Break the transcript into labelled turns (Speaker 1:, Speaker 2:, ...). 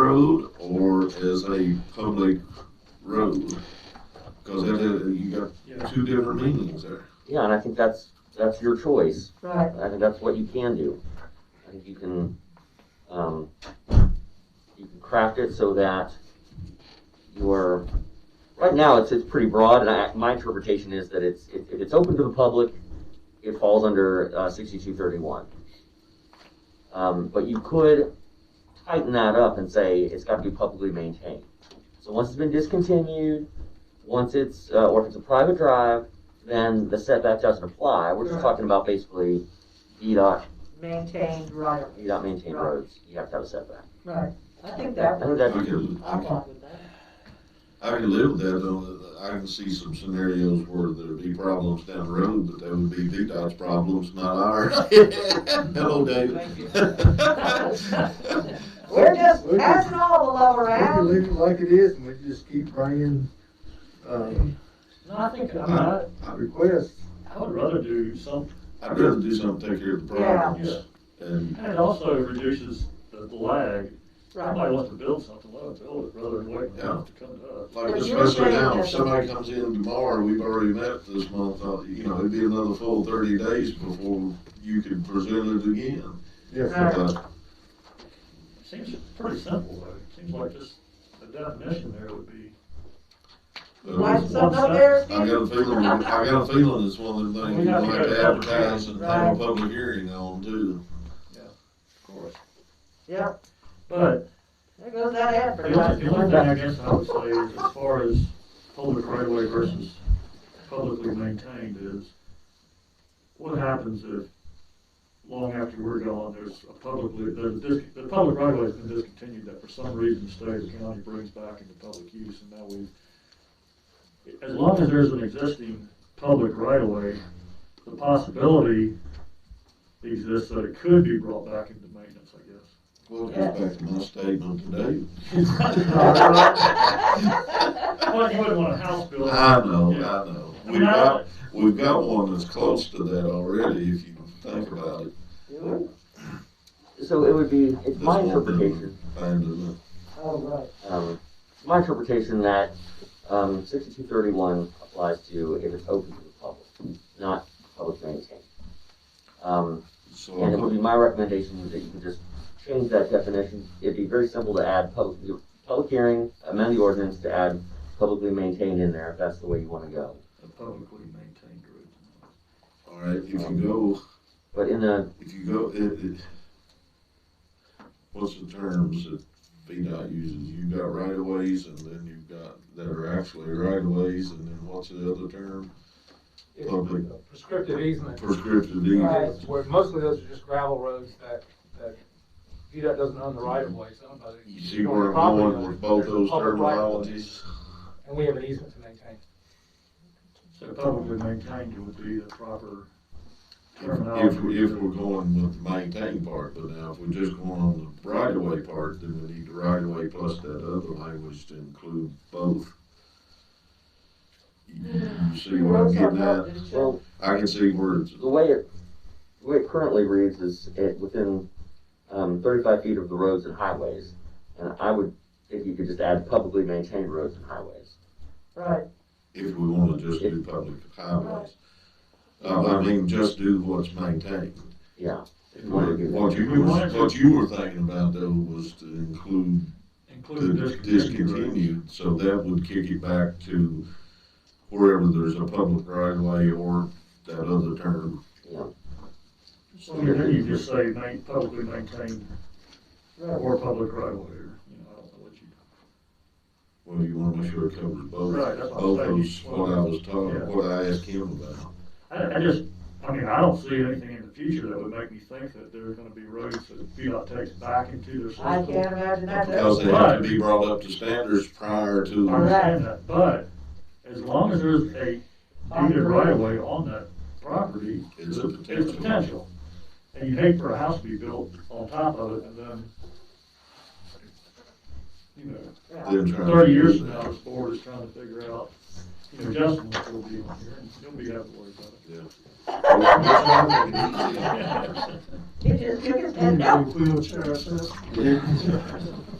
Speaker 1: road or as a public road? Because you got two different meanings there.
Speaker 2: Yeah, and I think that's, that's your choice.
Speaker 3: Right.
Speaker 2: I think that's what you can do. I think you can, um, you can craft it so that you're, right now, it's, it's pretty broad, and I, my interpretation is that it's, if, if it's open to the public, it falls under, uh, sixty-two thirty-one. Um, but you could tighten that up and say it's gotta be publicly maintained. So once it's been discontinued, once it's, uh, or if it's a private drive, then the setback doesn't apply. We're just
Speaker 3: Right.
Speaker 2: talking about basically DDOT,
Speaker 3: Maintained right of.
Speaker 2: DDOT maintained
Speaker 3: Right.
Speaker 2: roads, you have to have a setback.
Speaker 3: Right. I think
Speaker 2: I
Speaker 3: that
Speaker 2: think
Speaker 3: was,
Speaker 1: I
Speaker 2: that,
Speaker 1: can,
Speaker 3: I'm fine with that.
Speaker 1: I can live with that, though, I can see some scenarios where there'd be problems down the road, but that would be VDOT's problems, not ours. Hello, David.
Speaker 3: We're just
Speaker 4: We can-
Speaker 3: passing all the lower
Speaker 4: We can
Speaker 3: out.
Speaker 4: leave it like it is, and we just keep bringing, uh,
Speaker 5: No, I think, I mean, I,
Speaker 4: requests.
Speaker 5: I would rather do some,
Speaker 1: I'd rather do something, to take care of the problems, and,
Speaker 5: and it also reduces the lag.
Speaker 3: Right.
Speaker 5: Somebody wants to build something, let them build it rather than waiting for it to come to us.
Speaker 1: like,
Speaker 3: But you're
Speaker 1: especially
Speaker 3: saying
Speaker 1: now, if
Speaker 3: that-
Speaker 1: somebody comes in tomorrow, we've already met this month, uh, you know, it'd be another full thirty days before you could present it again.
Speaker 4: Yes,
Speaker 3: Right.
Speaker 4: sir.
Speaker 1: Uh,
Speaker 5: Seems pretty simple, though. It seems like just the definition there would be,
Speaker 3: Why
Speaker 1: I
Speaker 3: is something up there?
Speaker 1: got a feeling, I got a feeling it's one of the things
Speaker 5: We
Speaker 1: you
Speaker 5: have to
Speaker 1: like
Speaker 5: go to
Speaker 1: to
Speaker 5: public
Speaker 1: advertise and have a
Speaker 3: Right.
Speaker 1: public hearing on too.
Speaker 5: of course.
Speaker 3: Yeah,
Speaker 5: But
Speaker 3: there goes that
Speaker 5: the only, the only
Speaker 3: advertising.
Speaker 5: thing I guess I would say is as far as public right away versus publicly maintained is, what happens if long after we're gone, there's a publicly, there's, dis- the public right away has been discontinued that for some reason the state or county brings back into public use and now we, as long as there's an existing public right away, the possibility exists that it could be brought back into maintenance, I guess.
Speaker 1: Well, it goes back to my statement today.
Speaker 5: Well, you wouldn't want a house built.
Speaker 1: I know, I
Speaker 5: Yeah.
Speaker 1: know.
Speaker 5: I
Speaker 1: We've
Speaker 5: mean, I-
Speaker 1: got, we've got one that's close to that already, if you think about it.
Speaker 2: so it would be, it's my
Speaker 1: This whole building.
Speaker 2: interpretation
Speaker 1: And, uh,
Speaker 3: Oh, right.
Speaker 2: um, it's my interpretation that, um, sixty-two thirty-one applies to if it's open to the public, not public maintained. Um,
Speaker 1: So,
Speaker 2: and it would be my recommendation that you can just change that definition. It'd be very simple to add public, public hearing, amend the ordinance to add publicly maintained in there, if that's the way you wanna go.
Speaker 5: A publicly maintained road.
Speaker 1: all right, if you go,
Speaker 2: But in the,
Speaker 1: if you go, it, it, what's the terms that VDOT uses? You've got right of ways and then you've got, that are actually right of ways and then what's the other term? Public
Speaker 6: prescriptive easement.
Speaker 1: prescriptive
Speaker 3: Right.
Speaker 1: deeds.
Speaker 6: Where mostly those are just gravel roads that, that VDOT doesn't own the right of way, somebody.
Speaker 1: You see where I'm going with both those terminologies?
Speaker 6: And we have an easement to maintain.
Speaker 5: So publicly maintained would be the proper
Speaker 1: If, if
Speaker 5: terminology.
Speaker 1: we- if we're going with the maintain part, but now if we're just going on the right of way part, then we need the right of way plus that other language to include both. You you see what I'm getting at?
Speaker 2: well,
Speaker 1: I can see where it's,
Speaker 2: The way it, the way it currently reads is it within, um, thirty-five feet of the roads and highways. And I would, if you could just add publicly maintained roads and highways.
Speaker 3: Right,
Speaker 1: if we wanna just do public highways. Uh, I mean, just do what's maintained.
Speaker 2: Yeah,
Speaker 5: If we
Speaker 1: What
Speaker 5: wanted
Speaker 1: you, what
Speaker 5: wanted
Speaker 1: you-
Speaker 5: to
Speaker 1: what you were thinking about though was to include
Speaker 5: Include
Speaker 1: to
Speaker 5: discontinued roads.
Speaker 1: discontinue, so that would kick it back to wherever there's a public right of way or that other term.
Speaker 2: yeah.
Speaker 5: So you you just say main, publicly maintained
Speaker 3: right.
Speaker 5: or public right of way, or, you know, I don't know what you.
Speaker 1: Well, you wanna make sure it covers both,
Speaker 5: Right, that's what I'm
Speaker 1: both
Speaker 5: saying.
Speaker 1: those, what I was talking,
Speaker 5: Yeah.
Speaker 1: what I asked him about.
Speaker 5: I, I just, I mean, I don't see anything in the future that would make me think that there are gonna be roads that VDOT takes back into their system.
Speaker 3: I can't imagine that.
Speaker 1: Because they have to be brought up to standards prior
Speaker 5: I
Speaker 1: to,
Speaker 5: understand that, but as long as there's a deeded right of way on that property,
Speaker 1: it's a
Speaker 5: it's
Speaker 1: potential.
Speaker 5: potential. And you hate for a house to be built on top of it and then, you know,
Speaker 3: Yeah.
Speaker 1: They're trying to
Speaker 5: thirty years
Speaker 1: use
Speaker 5: from now,
Speaker 1: that.
Speaker 5: this board is trying to figure out, you know, Justin will still be on here and he'll be having to worry about it.
Speaker 3: He just took his head
Speaker 4: Yeah,
Speaker 3: down.
Speaker 4: Wheelchair access.